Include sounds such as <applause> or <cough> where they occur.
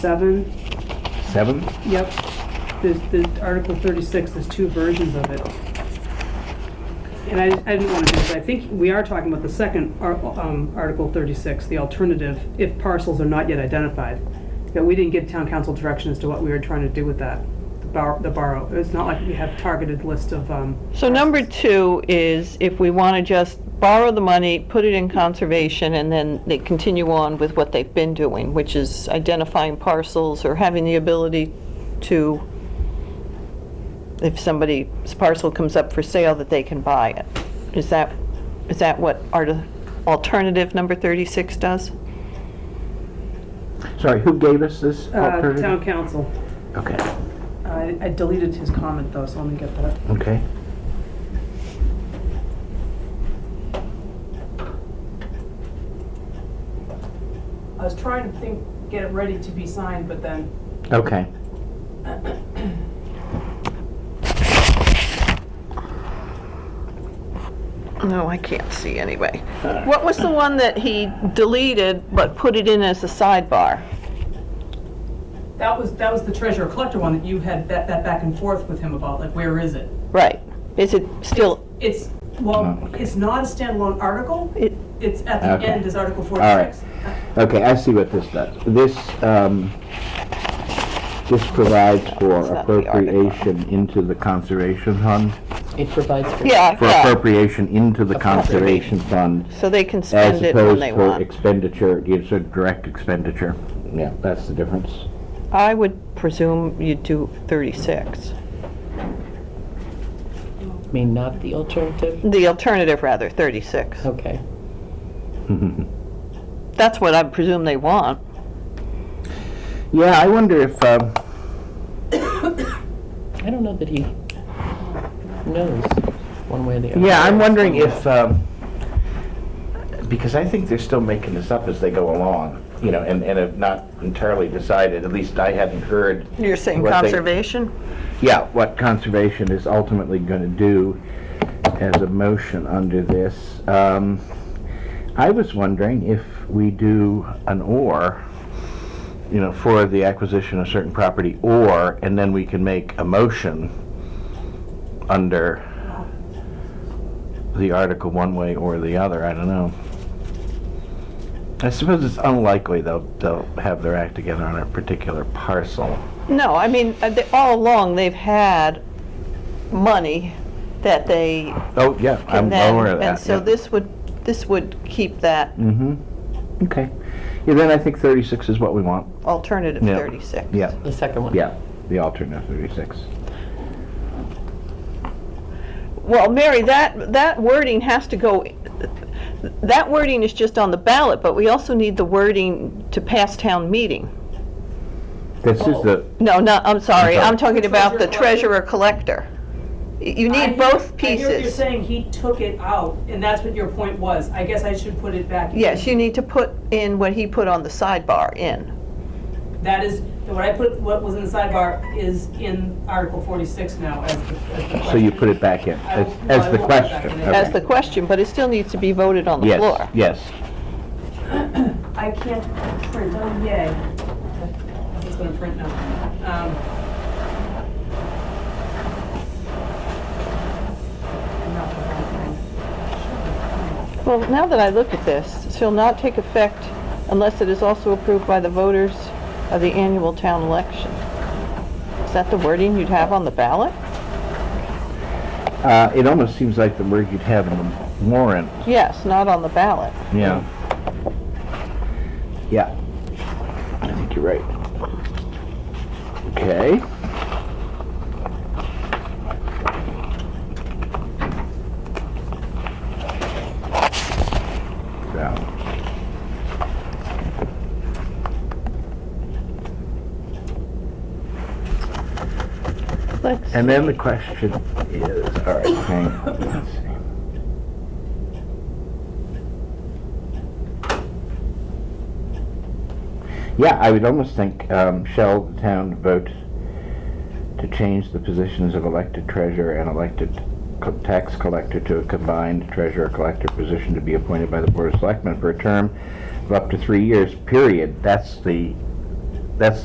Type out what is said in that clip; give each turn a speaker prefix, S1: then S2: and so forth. S1: seven,
S2: Seven?
S1: yep. There's, there's Article thirty-six, there's two versions of it. And I, I didn't want to do this, I think we are talking about the second ar- um, Article thirty-six, the alternative, if parcels are not yet identified. That we didn't give town council direction as to what we were trying to do with that, the bor- the borrow. It's not like we have targeted list of, um,
S3: So number two is if we want to just borrow the money, put it in conservation, and then they continue on with what they've been doing, which is identifying parcels or having the ability to, if somebody's parcel comes up for sale, that they can buy it. Is that, is that what our alternative number 36 does?
S2: Sorry, who gave us this
S1: uh,
S2: alternative?
S1: town council.
S2: Okay,
S1: I I deleted his comment though, so let me get that.
S2: okay.
S1: I was trying to think, get it ready to be signed, but then
S2: Okay.
S3: No, I can't see anyway. What was the one that he deleted but put it in as a sidebar?
S1: That was, that was the treasurer collector one that you had that, that back and forth with him about, like, where is it?
S3: Right. Is it still,
S1: It's, well, it's not a standalone article,
S3: it,
S1: it's at the
S2: Okay.
S1: end is Article
S2: All right.
S1: forty-six.
S2: Okay, I see what this does. This, um, this provides for
S3: It's not the article.
S2: appropriation into the conservation fund,
S4: It provides for.
S3: yeah,
S2: for
S3: yeah.
S2: appropriation into the conservation fund
S3: So they can
S2: as
S3: spend it when
S2: opposed
S3: they
S2: to
S3: want.
S2: expenditure, it gives a direct expenditure. Yeah, that's the difference. <laughs>
S3: I would presume you'd do 36.
S4: I mean, not the alternative?
S3: The alternative, rather, 36.
S2: Oh.
S4: Okay.
S3: That's what I presume they want.
S2: Yeah, I wonder if, um,
S4: I don't know that he knows one way or the other.
S2: Yeah, I'm wondering if, um, because I think they're still making this up as they go along, you know, and, and have not entirely decided, at least I hadn't heard.
S3: You're saying
S2: what they-
S3: conservation?
S2: Yeah, what conservation is ultimately gonna do as a motion under this. Um, I was wondering if we do an or, you know, for the acquisition of certain property, or, and then we can make a motion under the article one way or the other, I don't know. I suppose it's unlikely they'll, they'll have their act together on a particular parcel.
S3: No, I mean, uh, they- all along, they've had money that they
S2: Oh, yeah, I'm
S3: can then...
S2: aware of that.
S3: And so
S2: yeah.
S3: this would, this would keep that
S2: Mm-hmm. Okay. Yeah, then I think 36 is what we want.
S3: alternative
S2: Yeah.
S3: 36.
S2: Yeah,
S4: The second one.
S2: yeah, the alternate 36.
S3: Well, Mary, that, that wording has to go, that wording is just on the ballot, but we also need the wording to pass town meeting.
S2: This is the,
S3: No, no, I'm sorry,
S2: I'm
S3: I'm talking about the treasurer collector. Y- You
S5: I
S3: need
S5: hear-
S3: both
S5: I hear what you're
S3: pieces.
S5: saying, he took it out, and that's what your point was. I guess I should put it back. in.
S3: Yes, you need to put in what he put on the sidebar in.
S5: That is, what I put, what was in the sidebar is in Article 46 now as the as the
S2: so you
S5: question.
S2: put it back in,
S5: I
S2: as,
S5: will- no, I
S2: as
S5: will
S2: the
S5: put it back
S2: question.
S5: in.
S2: Okay.
S3: That's the question, but it still needs to be voted on the floor.
S2: Yes, yes.
S5: I can't print, oh yay. It's gonna print now. Um, I'm not gonna have it.
S3: Well, now that I look at this, it shall not take effect unless it is also approved by the voters of the annual town election. Is that the wording you'd have on the ballot?
S2: Uh, it almost seems like the word you'd have in the warrant,
S3: Yes, not on the ballot.
S2: yeah. Yeah, I think you're right. Okay. Yeah.
S3: Let's
S2: And then the question is, all right, hang on, let's see. Yeah, I would almost think, um, shall the town vote to change the positions of elected treasurer and elected co- tax collector to a combined treasurer-collector position to be appointed by the Board of Selectmen for a term of up to three years, period. That's the, that's